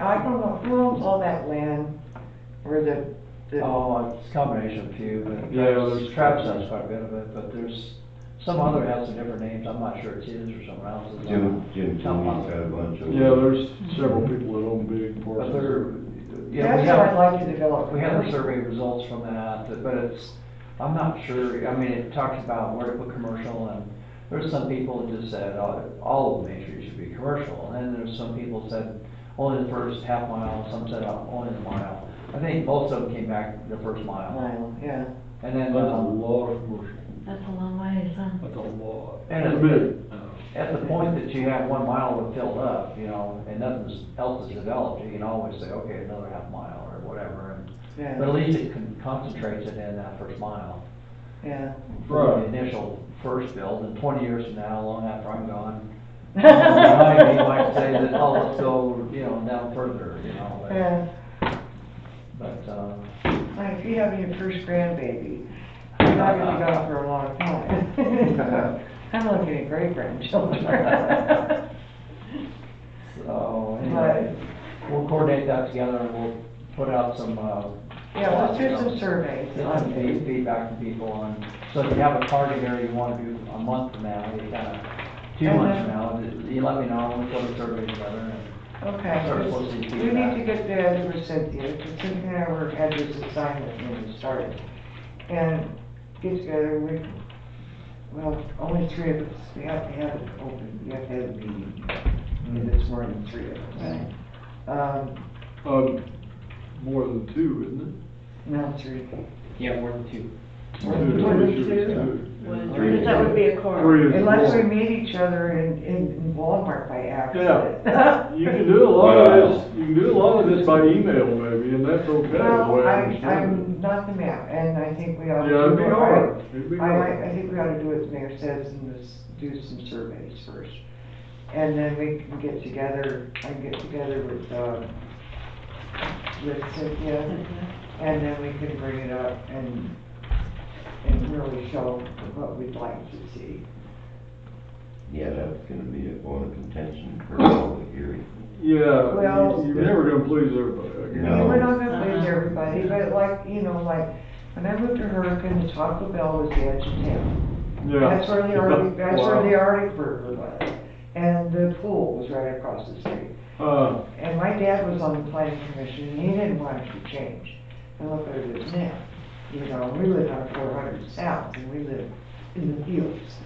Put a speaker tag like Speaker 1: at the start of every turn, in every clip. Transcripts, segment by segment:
Speaker 1: I don't know, who owns all that land where the, the,
Speaker 2: Oh, it's a combination of a few, but
Speaker 3: Yeah, there's-
Speaker 2: Travis, Travis has quite a bit of it, but there's some other has some different names, I'm not sure it's his or someone else's.
Speaker 4: Jim, Jim
Speaker 5: Oh,
Speaker 4: Tommy's got a bunch of.
Speaker 3: Yeah, there's several people that own big
Speaker 2: But
Speaker 3: parcels.
Speaker 2: there, yeah, we
Speaker 1: that's what I'd
Speaker 2: have,
Speaker 1: like to develop.
Speaker 2: we have the survey results from that, but it's, I'm not sure, I mean, it talks about where to put commercial and there's some people that just said, oh, all of Main Street should be commercial, and then there's some people said only the first half mile, some said only the mile. I think most of them came back the first mile,
Speaker 1: Mile, yeah.
Speaker 2: and then,
Speaker 3: That's a
Speaker 2: um,
Speaker 3: lot of commercial,
Speaker 5: That's a long way, son.
Speaker 3: that's a lot.
Speaker 2: And
Speaker 3: That's
Speaker 2: it's-
Speaker 3: big.
Speaker 2: At the point that you have one mile to fill up, you know, and nothing else is developed, you can always say, okay, another half mile or whatever. and-
Speaker 1: Yeah,
Speaker 2: But at least it can concentrate it in that first mile.
Speaker 1: yeah.
Speaker 2: for The
Speaker 3: Right.
Speaker 2: initial first build, and twenty years from now, long after I'm gone, you know, you might say that, oh, let's go, you know, down further, you know,
Speaker 1: Yeah,
Speaker 2: but, but, um,
Speaker 1: like if you have your first grandbaby, you're not gonna go for a long time. I'm looking at great grandchildren.
Speaker 2: so, anyway. We'll coordinate that together and we'll put out some, uh,
Speaker 1: Yeah, let's do some surveys.
Speaker 2: Get some feed- feedback from people on, so if you have a target area you wanna do a month from now, you kinda, two months from now, you let me know, we'll put a survey together and.
Speaker 1: Okay,
Speaker 2: Sure,
Speaker 1: just-
Speaker 2: we'll see
Speaker 1: we need
Speaker 2: feedback.
Speaker 1: to get together with Cynthia, because Cynthia and I were, had this assignment when we started. And get together, we, well, only three of us, we have to have it open, we have to have a meeting,
Speaker 6: Mm-hmm.
Speaker 3: Mm.
Speaker 1: if it's more than three of us. Um,
Speaker 3: Um, more than two, isn't
Speaker 1: no, three.
Speaker 6: Yeah, more than two.
Speaker 3: it?
Speaker 1: More than
Speaker 3: Two,
Speaker 1: two.
Speaker 3: pretty sure it's two.
Speaker 4: Three.
Speaker 5: Because that would be a
Speaker 3: Three
Speaker 5: quorum.
Speaker 3: is
Speaker 1: Unless we
Speaker 3: more.
Speaker 1: meet each other in, in Walmart by accident.
Speaker 3: You can do a lot of this, you can do a lot of this by email maybe, and that's okay. the way
Speaker 1: Well,
Speaker 3: I
Speaker 1: I'm,
Speaker 3: understand
Speaker 1: I'm not the map, and I think we
Speaker 3: it.
Speaker 1: ought to.
Speaker 3: Yeah, it'd be
Speaker 1: do it
Speaker 3: hard, it'd be
Speaker 1: I, like-
Speaker 3: hard.
Speaker 1: I think we ought to do what the mayor says and just do some surveys first. And then we can get together, I can get together with, uh, with Cynthia, and then we can bring it up and, and really show what we'd like to see.
Speaker 4: Yeah, that's gonna be a point of contention for public hearing.
Speaker 3: Yeah,
Speaker 1: Well-
Speaker 3: you- you're never gonna please everybody, I
Speaker 1: I mean,
Speaker 3: guess.
Speaker 1: we're not gonna please everybody, but like, you know, like, when I moved to Hurricane, the Taco Bell was the edge of town.
Speaker 3: Yeah.
Speaker 1: That's where the Arctic, that's where
Speaker 3: Wow.
Speaker 1: the Arctic Burger was, and the pool was right across the street.
Speaker 3: Uh,
Speaker 1: And my dad was on the planning commission, and he didn't want it to change. And look what it is now. You know, we live on four hundred south, and we live in the fields.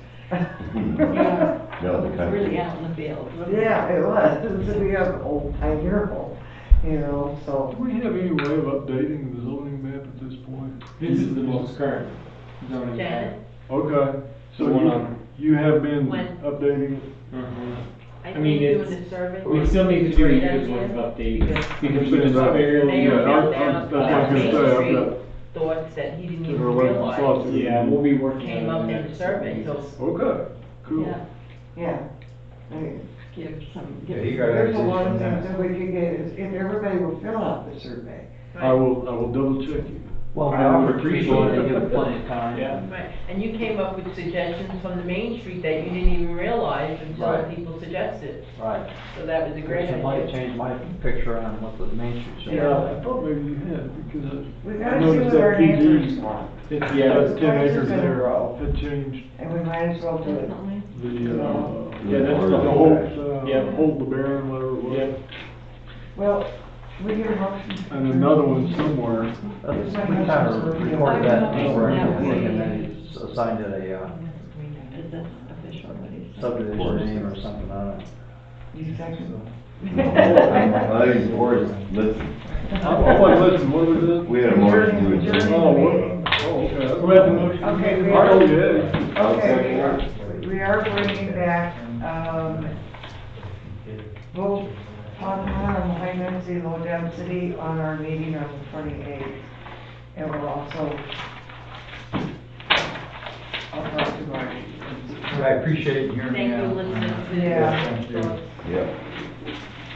Speaker 5: Yeah.
Speaker 4: No, the
Speaker 5: It's Really
Speaker 4: country.
Speaker 5: out in the field.
Speaker 1: Yeah, it was, we have old pioneer home, you know, so.
Speaker 3: do we have any way of updating the zoning map at this point?
Speaker 6: This is the most current zoning.
Speaker 7: Janet,
Speaker 3: Okay, so
Speaker 6: The one
Speaker 3: you,
Speaker 6: on-
Speaker 3: you have been
Speaker 7: When?
Speaker 3: updating it?
Speaker 6: Uh-huh.
Speaker 7: I
Speaker 6: I
Speaker 7: think
Speaker 6: mean,
Speaker 7: doing the
Speaker 6: it's-
Speaker 7: survey.
Speaker 6: We still need to do a year's worth of updates because we just barely.
Speaker 7: Mayor
Speaker 3: Yeah, I- I-
Speaker 7: found out
Speaker 3: that's what I was gonna
Speaker 7: Main
Speaker 3: say, I've
Speaker 7: Street
Speaker 3: got-
Speaker 7: Thoughts that he didn't
Speaker 3: Get
Speaker 7: even
Speaker 3: her away from
Speaker 7: realize
Speaker 3: slots.
Speaker 6: Yeah, we'll be working.
Speaker 7: came
Speaker 6: on
Speaker 7: up
Speaker 6: it
Speaker 7: in the
Speaker 6: next
Speaker 7: survey, so.
Speaker 6: week.
Speaker 3: Okay, cool.
Speaker 7: Yeah.
Speaker 1: Yeah. I mean,
Speaker 5: Give some,
Speaker 4: Yeah, you
Speaker 5: give.
Speaker 4: got
Speaker 1: There's a
Speaker 4: access
Speaker 1: lot
Speaker 4: to
Speaker 1: of things
Speaker 4: that.
Speaker 1: that we could get, is if everybody will fill out the survey.
Speaker 3: I will, I will double check you.
Speaker 2: Well, we
Speaker 6: I would
Speaker 2: offer people
Speaker 6: appreciate
Speaker 2: and
Speaker 6: it.
Speaker 2: give them plenty of time.
Speaker 6: Yeah.
Speaker 7: Right, and you came up with suggestions from the Main Street that you didn't even realize until
Speaker 2: Right.
Speaker 7: people suggested,
Speaker 2: Right.
Speaker 7: so that was a great
Speaker 2: It might
Speaker 7: idea.
Speaker 2: change my picture on what the Main Street should
Speaker 7: Yeah.
Speaker 3: I thought maybe you had, because
Speaker 1: We
Speaker 3: I- I
Speaker 1: gotta see
Speaker 3: noticed
Speaker 1: what our
Speaker 3: that
Speaker 1: neighbors
Speaker 3: PG,
Speaker 1: want,
Speaker 6: It's,
Speaker 3: that
Speaker 6: yeah,
Speaker 1: The
Speaker 3: ten
Speaker 1: prices
Speaker 3: acres
Speaker 1: in a
Speaker 3: there
Speaker 1: row.
Speaker 3: had changed
Speaker 1: and we might as well do it.
Speaker 5: Definitely.
Speaker 3: the, uh,
Speaker 4: Yeah, that's
Speaker 3: the
Speaker 4: the-
Speaker 3: whole,
Speaker 6: Yeah.
Speaker 3: uh, hold the baron, whatever it was.
Speaker 6: yeah,
Speaker 1: Well, we get a motion.
Speaker 3: And another one somewhere.
Speaker 2: Let's- Uh, We kind of recorded that anyway, and then he assigned it a uh,
Speaker 5: Is this official, what he said?
Speaker 2: subdivision name or something on it.
Speaker 1: You second.
Speaker 4: I think it's worth, listen,
Speaker 3: I'm, I'm like, listen, what was it?
Speaker 4: we had a motion to adjourn.
Speaker 3: Oh, what? Oh, okay.
Speaker 6: Who had the motion?
Speaker 1: Okay, we
Speaker 3: Oh,
Speaker 1: are,
Speaker 3: yeah.
Speaker 4: I'll second
Speaker 1: okay,
Speaker 4: that.
Speaker 1: we are bringing back, um, vote on, on high density, low density on our meeting on the twenty-eighth. And we'll also, I'll talk to Marty.
Speaker 2: I appreciate hearing
Speaker 7: Thank you, listening to.
Speaker 1: Yeah.
Speaker 4: Yep.